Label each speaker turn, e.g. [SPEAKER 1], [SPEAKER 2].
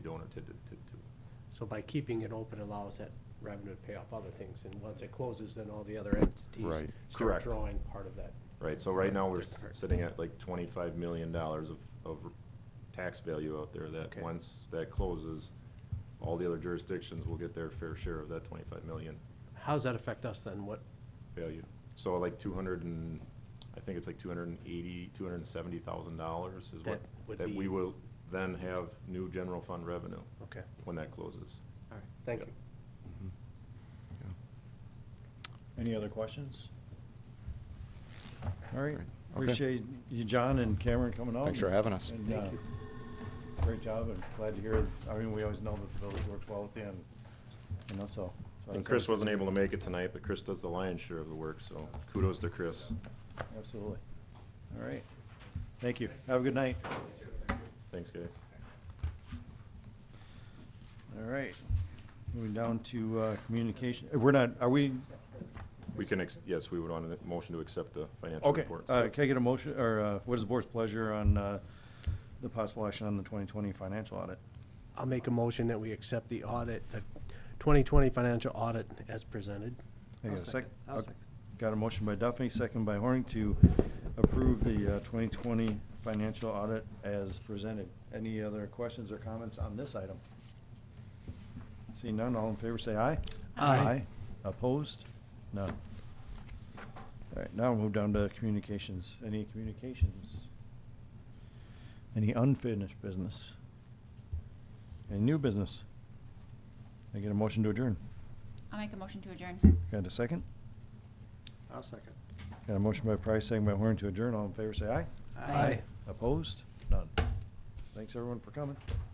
[SPEAKER 1] to, to, to. So by keeping it open allows that revenue to pay off other things, and once it closes, then all the other entities
[SPEAKER 2] Right.
[SPEAKER 1] start
[SPEAKER 3] Correct.
[SPEAKER 1] drawing part of that.
[SPEAKER 3] Right, so right now, we're
[SPEAKER 1] That's
[SPEAKER 3] s-
[SPEAKER 1] correct.
[SPEAKER 3] sitting at like twenty-five million dollars of, of tax value out there that,
[SPEAKER 1] Okay.
[SPEAKER 3] once that closes, all the other jurisdictions will get their fair share of that twenty-five million
[SPEAKER 1] How does that affect us then? What,
[SPEAKER 3] value. So like two hundred and, I think it's like two hundred and eighty, two hundred and seventy thousand dollars is what,
[SPEAKER 1] That would
[SPEAKER 3] that
[SPEAKER 1] be-
[SPEAKER 3] we will then have new general fund revenue
[SPEAKER 1] okay,
[SPEAKER 3] when that closes.
[SPEAKER 1] all right, thank
[SPEAKER 3] Yep.
[SPEAKER 1] you.
[SPEAKER 4] Any other questions? All
[SPEAKER 2] Great.
[SPEAKER 4] right,
[SPEAKER 2] Okay.
[SPEAKER 4] appreciate you, John and Cameron coming out.
[SPEAKER 2] Thanks for having us.
[SPEAKER 4] And, uh, Great job, and glad to hear, I mean, we always know that the village works well with you, and, you know, so. so
[SPEAKER 3] And
[SPEAKER 4] that's
[SPEAKER 3] Chris
[SPEAKER 4] all-
[SPEAKER 3] wasn't able to make it tonight, but Chris does the lion's share of the work, so kudos to Chris.
[SPEAKER 4] Absolutely. All right, thank you, have a good night.
[SPEAKER 3] Thanks, guys.
[SPEAKER 4] All right, moving down to uh, communication, uh, we're not, are we,
[SPEAKER 3] We can, ex- yes, we would want a motion to accept the financial
[SPEAKER 4] okay,
[SPEAKER 3] reports.
[SPEAKER 4] uh, can I get a motion, or uh, what is the board's pleasure on uh, the possible action on the 2020 financial audit?
[SPEAKER 1] I'll make a motion that we accept the audit, the 2020 financial audit as presented.
[SPEAKER 4] Hang on a
[SPEAKER 5] I'll
[SPEAKER 4] sec.
[SPEAKER 5] second. I'll
[SPEAKER 4] Uh,
[SPEAKER 5] second.
[SPEAKER 4] Got a motion by Duffy, second by Horning to approve the uh, 2020 financial audit as presented. Any other questions or comments on this item? Seeing none, all in favor say aye.
[SPEAKER 1] Aye.
[SPEAKER 4] Opposed? None. All right, now we'll move down to communications. Any communications? Any unfinished business? Any new business? I get a motion to adjourn.
[SPEAKER 6] I'll make a motion to adjourn.
[SPEAKER 4] Got a second?
[SPEAKER 5] I'll second.
[SPEAKER 4] Got a motion by Price, second by Horn to adjourn. All in favor, say aye.
[SPEAKER 5] Aye.
[SPEAKER 4] Opposed? None. Thanks, everyone, for coming.